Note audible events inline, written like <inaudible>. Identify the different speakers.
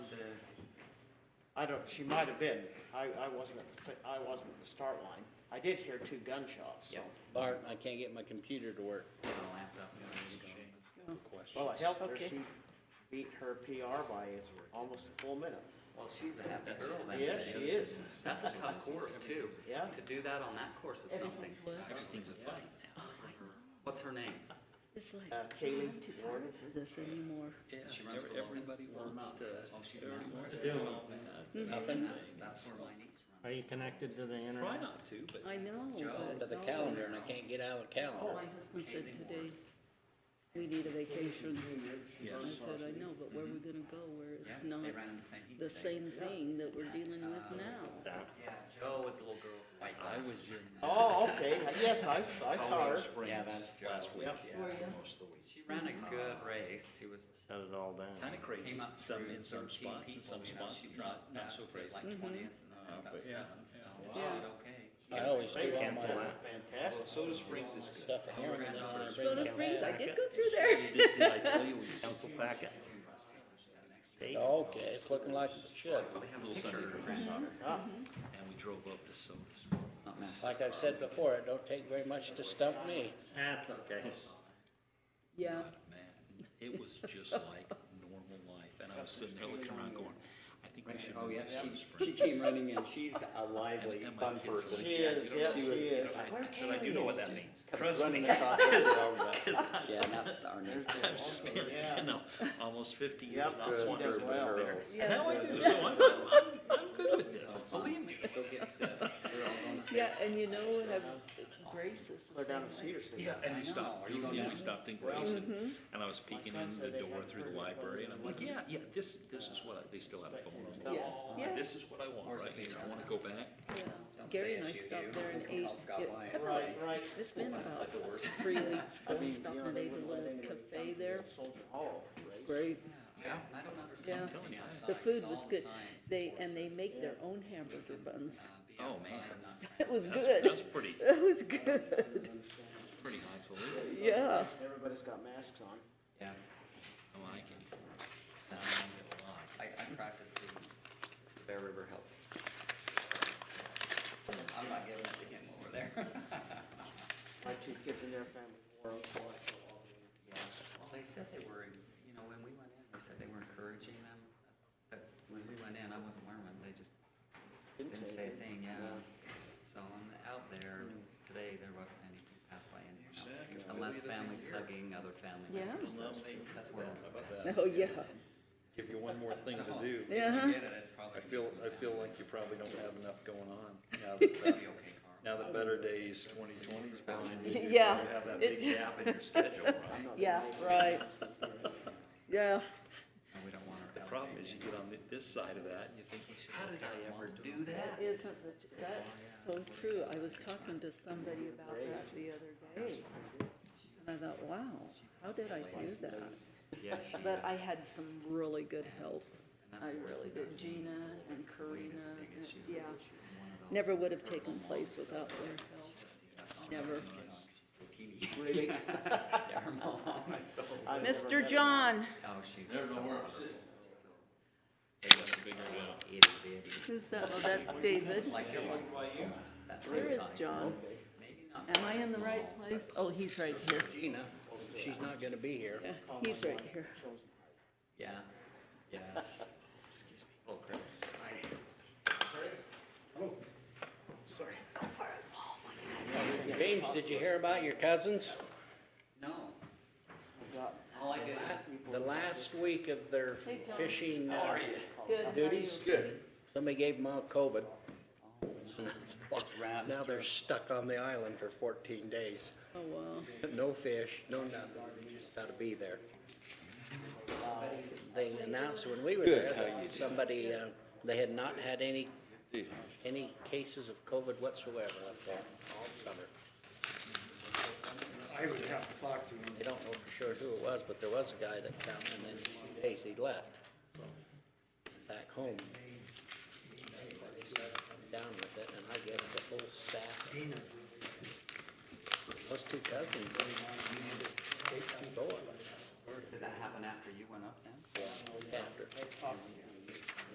Speaker 1: I don't, she might have been, I, I wasn't, at the- I wasn't at the start line. I did hear two gunshots, so.
Speaker 2: Yeah.
Speaker 3: Bart, I can't get my computer to work.
Speaker 2: Get a laptop, you know, it's gone.
Speaker 1: Well, I helped her,
Speaker 3: Okay.
Speaker 1: she beat her PR by almost a full minute.
Speaker 2: Well, she's a happy
Speaker 4: That's-
Speaker 2: girl that
Speaker 1: Yeah,
Speaker 2: day.
Speaker 1: she is.
Speaker 2: That's a tough course too.
Speaker 1: Yeah.
Speaker 2: To do that on that course is something. Oh,
Speaker 4: Everything's a fight now.
Speaker 2: What's her name?
Speaker 5: It's like,
Speaker 1: Uh,
Speaker 5: I'm
Speaker 1: Kaylee
Speaker 5: not too
Speaker 1: Warren.
Speaker 5: tired for this anymore.
Speaker 4: Yeah,
Speaker 2: She runs
Speaker 4: ev-
Speaker 2: for Logan.
Speaker 4: everybody wants to,
Speaker 2: Oh, she's
Speaker 4: everybody
Speaker 2: not.
Speaker 4: wants to
Speaker 6: Still
Speaker 4: know
Speaker 6: not.
Speaker 4: that.
Speaker 3: Nothing?
Speaker 2: That's, that's where my niece runs.
Speaker 6: Are you connected to the internet?
Speaker 4: Try not to, but.
Speaker 5: <laughs> I know,
Speaker 4: Joe,
Speaker 3: But
Speaker 5: but.
Speaker 3: the
Speaker 5: no.
Speaker 3: calendar, and I can't get out of the
Speaker 5: Oh, My
Speaker 3: calendar.
Speaker 5: husband said today, we need a vacation.
Speaker 4: Yes.
Speaker 5: I said, I know, but where are we gonna go where
Speaker 2: Yeah,
Speaker 5: it's not
Speaker 2: they ran in the same heat
Speaker 5: the
Speaker 2: today.
Speaker 5: same thing that we're dealing with now?
Speaker 2: Yeah, Joe was the little girl with white
Speaker 4: I
Speaker 2: glasses. uh,
Speaker 4: was in.
Speaker 1: Oh, okay, yes, I, I saw her.
Speaker 4: Colorado Springs
Speaker 3: that's
Speaker 4: last week,
Speaker 1: Yep.
Speaker 5: Were ya?
Speaker 4: most of the week.
Speaker 2: She ran a good race. She was
Speaker 6: Shut it all down.
Speaker 4: Kinda crazy,
Speaker 2: came up
Speaker 4: some
Speaker 2: through
Speaker 4: in
Speaker 2: 13
Speaker 4: some spots, and
Speaker 2: people,
Speaker 4: some
Speaker 2: you know,
Speaker 4: spots
Speaker 2: she
Speaker 4: not,
Speaker 2: dropped
Speaker 4: not
Speaker 2: up
Speaker 4: so
Speaker 2: to <laughs>
Speaker 4: crazy.
Speaker 2: Like
Speaker 5: Mhm.
Speaker 2: twentieth and then
Speaker 4: Uh,
Speaker 2: about
Speaker 4: but yeah,
Speaker 2: seventh, so
Speaker 4: yeah.
Speaker 2: she
Speaker 1: Wow.
Speaker 2: did okay.
Speaker 3: I always
Speaker 1: They
Speaker 3: do all
Speaker 6: can't
Speaker 3: my
Speaker 6: fly.
Speaker 1: fantastic.
Speaker 4: Soda Springs is good.
Speaker 3: stuff in here, and then I bring
Speaker 5: Soda
Speaker 3: it out.
Speaker 5: Springs, I did go through there.
Speaker 4: Did, did I tell you? we used to-
Speaker 6: Council packet. Eight.
Speaker 3: Okay, it's looking like it should.
Speaker 4: They have little Sunday drinks,
Speaker 1: Ah,
Speaker 4: and we drove up to Soda Springs.
Speaker 2: Not messed
Speaker 3: Like I've said before, it don't take very much to stump me.
Speaker 6: That's okay.
Speaker 5: Yeah,
Speaker 4: Man, it was just like normal life, and I was sitting there looking around going, I think we should
Speaker 7: Oh,
Speaker 4: move
Speaker 7: yeah,
Speaker 4: to Soda
Speaker 7: she, she
Speaker 4: Springs.
Speaker 7: came running in, she's a lively,
Speaker 4: And my
Speaker 7: fun
Speaker 4: kids were
Speaker 7: person.
Speaker 4: like,
Speaker 1: She is,
Speaker 4: you know,
Speaker 1: yeah,
Speaker 7: she
Speaker 1: she
Speaker 7: was-
Speaker 1: is.
Speaker 4: I- Should I do know what that means?
Speaker 7: Comes
Speaker 4: Trust
Speaker 7: running
Speaker 4: me. <laughs>
Speaker 7: across the road, but-
Speaker 4: Because
Speaker 7: Yeah, that's our
Speaker 4: <laughs>
Speaker 7: next.
Speaker 4: I've spent, you know, almost fifty years
Speaker 1: Yep.
Speaker 4: not
Speaker 1: Good.
Speaker 4: wandering
Speaker 1: Does well.
Speaker 4: around there.
Speaker 5: Yeah.
Speaker 4: And now I
Speaker 8: <laughs>
Speaker 4: do, so I'm, I'm, I'm- I'm good with this, believe me.
Speaker 7: Go get stuff. We're all going to sleep.
Speaker 5: yeah, and you know, what? I've- it's Grace's. the
Speaker 1: They're down in
Speaker 5: same way.
Speaker 1: Cedar City.
Speaker 4: Yeah, and we
Speaker 7: know.
Speaker 4: stopped,
Speaker 7: Are you going
Speaker 4: yeah,
Speaker 7: down?
Speaker 4: we stopped in Grace, and,
Speaker 8: mm-hmm.
Speaker 5: Mhm.
Speaker 4: and I was peeking
Speaker 1: son
Speaker 4: in
Speaker 1: said they
Speaker 4: the door
Speaker 1: had
Speaker 4: through the
Speaker 1: heard of
Speaker 4: library, and I'm like, yeah,
Speaker 1: London.
Speaker 4: yeah, this, this is what, I they still have a phone on
Speaker 5: Yeah, yeah,
Speaker 4: This is what I want,
Speaker 7: Where's the
Speaker 4: right here,
Speaker 7: picture?
Speaker 4: I wanna go back,
Speaker 5: yeah.
Speaker 7: Don't say
Speaker 5: Gary and I
Speaker 7: SU,
Speaker 5: stopped there and
Speaker 7: you
Speaker 5: ate.
Speaker 7: call Scott
Speaker 5: get
Speaker 7: Lyon.
Speaker 5: pepper.
Speaker 1: Right, right.
Speaker 5: It's been
Speaker 7: Open
Speaker 5: about
Speaker 7: the doors.
Speaker 5: three
Speaker 1: <laughs>
Speaker 5: weeks,
Speaker 1: I
Speaker 5: ago,
Speaker 1: mean,
Speaker 5: stopped
Speaker 1: you know,
Speaker 5: and
Speaker 1: they
Speaker 5: ate
Speaker 1: wouldn't
Speaker 5: a
Speaker 1: let
Speaker 5: little
Speaker 1: anybody
Speaker 5: cafe
Speaker 1: down to
Speaker 5: there.
Speaker 1: the Soldier Hall. race.
Speaker 5: Great.
Speaker 2: Yeah, and I don't
Speaker 5: Yeah.
Speaker 2: understand.
Speaker 4: I'm telling you, I-
Speaker 5: The food was good. They, and they make their own hamburger buns. <laughs>
Speaker 7: Uh,
Speaker 4: Oh, man.
Speaker 5: It was
Speaker 4: that's, that's
Speaker 5: good.
Speaker 4: pretty,
Speaker 5: <laughs> It was good.
Speaker 4: pretty highfalutin,
Speaker 5: <laughs> Yeah.
Speaker 1: Everybody's got masks on.
Speaker 2: Yeah,
Speaker 4: I like it. I
Speaker 7: Um,
Speaker 4: like it a lot.
Speaker 2: I, I practiced the,
Speaker 7: Bear River help.
Speaker 2: I'm not giving it to him over there.
Speaker 7: <laughs>
Speaker 1: My two kids and their family wore them, so I feel all the-
Speaker 2: Yeah, well, they said they were, you know, when we went in, they said they were encouraging them, but when we went in, I wasn't wearing one, they just didn't say a thing, yeah. So I'm out there, today, there wasn't any, passed by any house, unless families hugging other family
Speaker 5: Yeah.
Speaker 2: members. That's where I'm passing.
Speaker 5: Oh, yeah.
Speaker 8: Give you one more thing to do.
Speaker 5: Yeah.
Speaker 2: Forget it, it's probably.
Speaker 8: I feel, I feel like you probably don't have enough going on now that, uh,
Speaker 4: <laughs>
Speaker 2: Be okay, Carl.
Speaker 8: now that Better Days twenty twenty is pushing
Speaker 5: <laughs>
Speaker 8: you. You
Speaker 5: Yeah,
Speaker 8: probably have that
Speaker 5: it-
Speaker 8: big gap in your
Speaker 5: <laughs>
Speaker 8: schedule, right?
Speaker 1: I'm not
Speaker 5: Yeah,
Speaker 1: gonna
Speaker 5: right. Yeah.
Speaker 2: No, We don't want our.
Speaker 8: The problem is you get on thi- this side of that and you think,
Speaker 2: How did I ever do that?
Speaker 5: Isn't that, that's so true. I was talking to somebody about that the other day. And I thought, wow, how did I do that?
Speaker 2: Yes, she
Speaker 5: But I
Speaker 2: is.
Speaker 5: had some really good help.
Speaker 2: And that's
Speaker 5: I
Speaker 2: what worries
Speaker 5: really
Speaker 2: me
Speaker 5: did.
Speaker 2: about
Speaker 5: Gina
Speaker 2: Jean.
Speaker 5: and
Speaker 2: It's the weight is
Speaker 5: Karina
Speaker 2: the big
Speaker 5: and-
Speaker 2: issue.
Speaker 5: yeah.
Speaker 2: She's one of those
Speaker 5: Never would have
Speaker 2: that
Speaker 5: taken
Speaker 2: her
Speaker 5: place
Speaker 2: mom
Speaker 5: without
Speaker 2: sucked.
Speaker 5: their
Speaker 2: She's
Speaker 5: help. Never.
Speaker 2: like, "Oh, <laughs> Really? Yeah, her mom, I saw <laughs> her.
Speaker 1: I've never met
Speaker 5: Mr.
Speaker 1: a-
Speaker 5: John,
Speaker 2: Oh, she's. There's no word.
Speaker 4: They left a big one.
Speaker 2: Itty bitty.
Speaker 5: who's that? Oh, that's David.
Speaker 2: Like you're like, almost that same
Speaker 5: Where is
Speaker 2: size.
Speaker 5: John?
Speaker 2: Maybe not
Speaker 5: Am I
Speaker 2: quite
Speaker 5: in the right
Speaker 2: small,
Speaker 5: place? Oh, he's right here.
Speaker 3: Gina, she's not gonna be here.
Speaker 5: Yeah,
Speaker 1: call my
Speaker 5: he's right
Speaker 1: wife
Speaker 5: here.
Speaker 1: Chosen Heart.
Speaker 2: but- Yeah, <laughs> yeah. Oh, crap.
Speaker 3: James, did you hear about your cousins?
Speaker 2: No,
Speaker 1: I've got
Speaker 2: all I did is just
Speaker 1: people
Speaker 3: The
Speaker 1: that
Speaker 3: last week of their
Speaker 5: Hey, John.
Speaker 3: fishing uh,
Speaker 1: call
Speaker 5: Good,
Speaker 1: them.
Speaker 5: how are you?
Speaker 3: duties. Good. Somebody gave them all COVID.
Speaker 2: wrap
Speaker 3: Now they're stuck on the island for fourteen days.
Speaker 5: Oh, wow.
Speaker 3: <laughs> No fish, no nothing, They just gotta be there. They announced when we were there, that somebody, uh, they had not had any, any cases of COVID whatsoever up there all summer.
Speaker 9: I would have to talk to him.
Speaker 3: They don't know for sure who it was, but there was a guy that come and then in two days he left. Back home. Down with it, and I guess the whole staff. Those two cousins. Both
Speaker 2: Did that happen after you went up then?
Speaker 3: after.
Speaker 1: They talked to you.